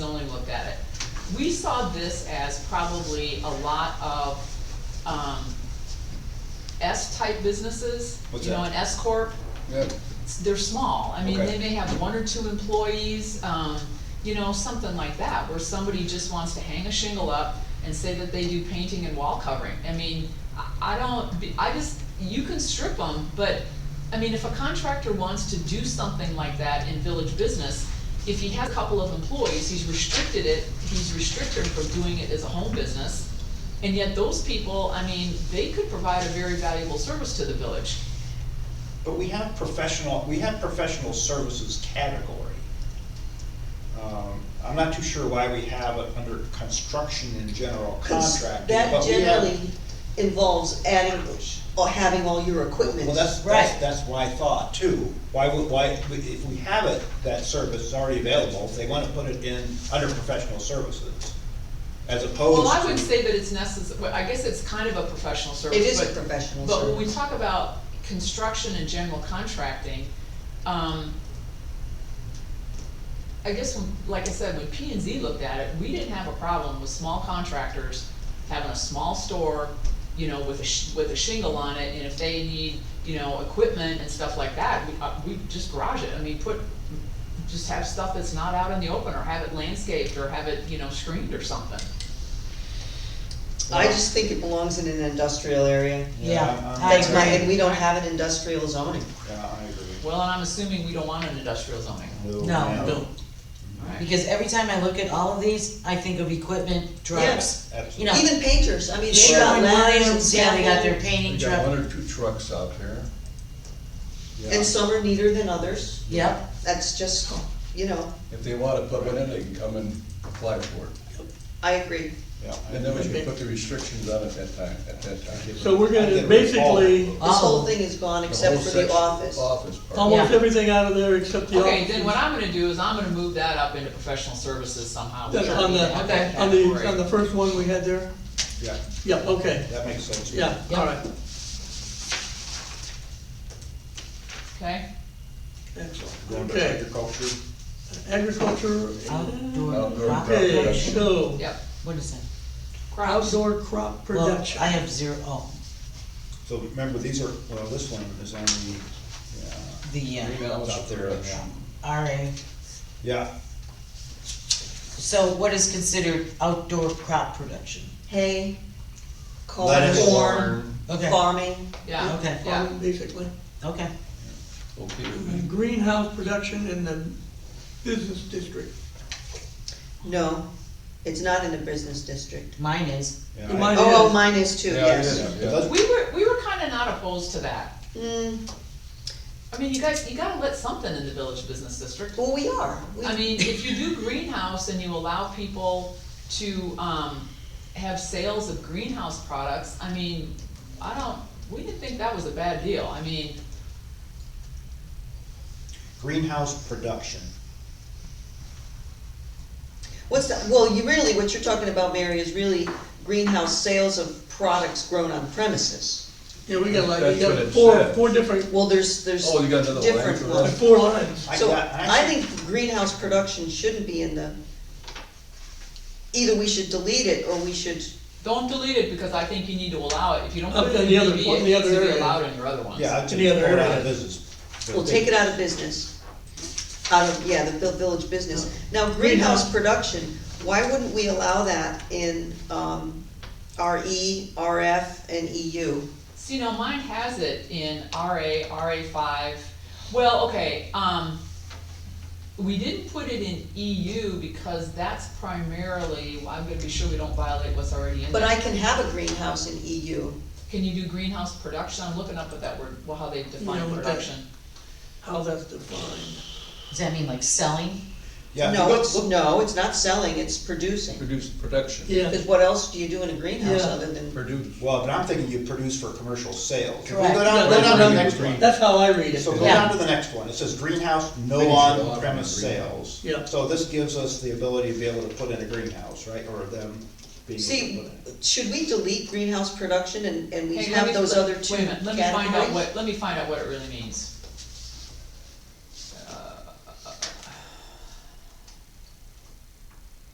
we saw this as probably a lot of, um, S-type businesses, What's you know, that? an S corp. Yeah, They're small, I mean, Okay. they may have one or two employees, um, you know, something like that, where somebody just wants to hang a shingle up and say that they do painting and wall covering. I mean, I, I don't, be- I just, you can strip them, but, I mean, if a contractor wants to do something like that in village business, if he has a couple of employees, he's restricted it, he's restricted from doing it as a home business. And yet those people, I mean, they could provide a very valuable service to the village. but we have professional, we have professional services category. Um, I'm not too sure why we have it under construction and general contracting, That but we have. generally involves adding or having all your equipment. Well, that's, that's, Right. that's my thought too. Why would, why, if we have it, that service is already available, if they wanna put it in under professional services, as opposed to. Well, I wouldn't say that it's necess, well, I guess it's kind of a professional service, It is a but- professional But when we service. talk about construction and general contracting, um, I guess when, like I said, when P and Z looked at it, we didn't have a problem with small contractors having a small store, you know, with a sh- with a shingle on it, and if they need, you know, equipment and stuff like that, we, uh, we just garage it, I mean, put, just have stuff that's not out in the open, or have it landscaped, or have it, you know, screened or something. I just think it belongs in an industrial area. Yeah, I'm- I That's my, agree. and we don't have an industrial zoning. Yeah, I agree. Well, and I'm assuming we don't want an industrial zoning. No. No. Alright, Because every time I look at all of these, I think of equipment, trucks. Absolutely. You know, Even painters, I mean, they got Sherwin ladders and Williams, yeah, samples. they got their We painting got truck, one or two trucks out there. Yeah. And some are neater than others. yep, That's just, you know, If they wanna put one in, they can come and apply for it. I agree. Yeah. And then we can put the restrictions on at that time, at that time. So we're I gonna, get what it's called. basically, This whole Oh. thing is gone The except whole for the section- office. Office part. almost Yeah. everything out of there except the okay, then what offices. I'm gonna do is I'm gonna move that up into professional services somehow. We That's don't on need the, to have that on the, category. on the first one we had there? Yeah, Yeah, okay, that makes sense. yeah, Yeah. all right, Okay, Going to okay. agriculture, Agriculture, outdoor Outdoor crop crop okay, production. production. so, yep. What is that? Crops, outdoor crop Well, I production. have zero, oh, so remember, these are, well, this one is on the, the, yeah. uh, Emails out there, yeah. RA. Yeah, So what is considered outdoor crop production? Hay, corn, Lettuce. Oh, corn, Okay. farming. yeah, Okay. yeah. farming, Basically, Okay, Okay, And greenhouse production in the business district. No, it's not in the business district. mine is, yeah. You I- might- It Oh, oh, is. mine is too, Yeah, it yes. is. yeah, but that's- We were, we were kinda not opposed to that. Mm, I mean, you guys, you gotta let something in the village business district. well, we are. We- I mean, if you do greenhouse and you allow people to, um, have sales of greenhouse products, I mean, I don't, we didn't think that was a bad deal. I mean, Greenhouse production. What's that, well, you really, what you're talking about, Mary, is really greenhouse sales of products grown on premises. Yeah, we got like, That's we what got it four, said. four different, Well, there's, there's Oh, you got another line different for that? ones. four lines. I So got- I think greenhouse production shouldn't be in the, either we should delete it or we should, Don't delete it, because I think you need to allow it, if you don't Up put it in in the other- DB, in it the needs to other be area. allowed in your other ones. Yeah, I'd Any take other it out area. of business. we'll take it out of business. Out of, yeah, the vil- village business. Now, greenhouse production, why wouldn't we allow that in, um, RE, RF, and E EU? See, now mine has it in RA, RA five, well, okay, um, we didn't put it in EU because that's primarily, I'm gonna be sure we don't violate what's already in But there. I can have a greenhouse in E EU. Can you do greenhouse production? I'm looking up at that word, well, how they define Yeah, what that- production. How that's defined. does that mean like selling? Yeah, No, look- it's, look- no, it's not selling, it's producing. Produce, production, Yeah, Because what else do you do in a greenhouse Yeah. other than, produce. Well, but I'm thinking you produce for commercial sales. If we Correct. Go down, go That's down to what the I'm- next one. that's how I read it. So go Yeah. down to the next one. It says greenhouse, no Maybe you should allow on-premise them in greenhouse. sales. Yeah. So this gives us the ability to be able to put in a greenhouse, right, or them being able see, to put in. should we delete greenhouse production and, and we Hey, let have me- those other two Wait a minute, let me find out categories? what, let me find out what it really means.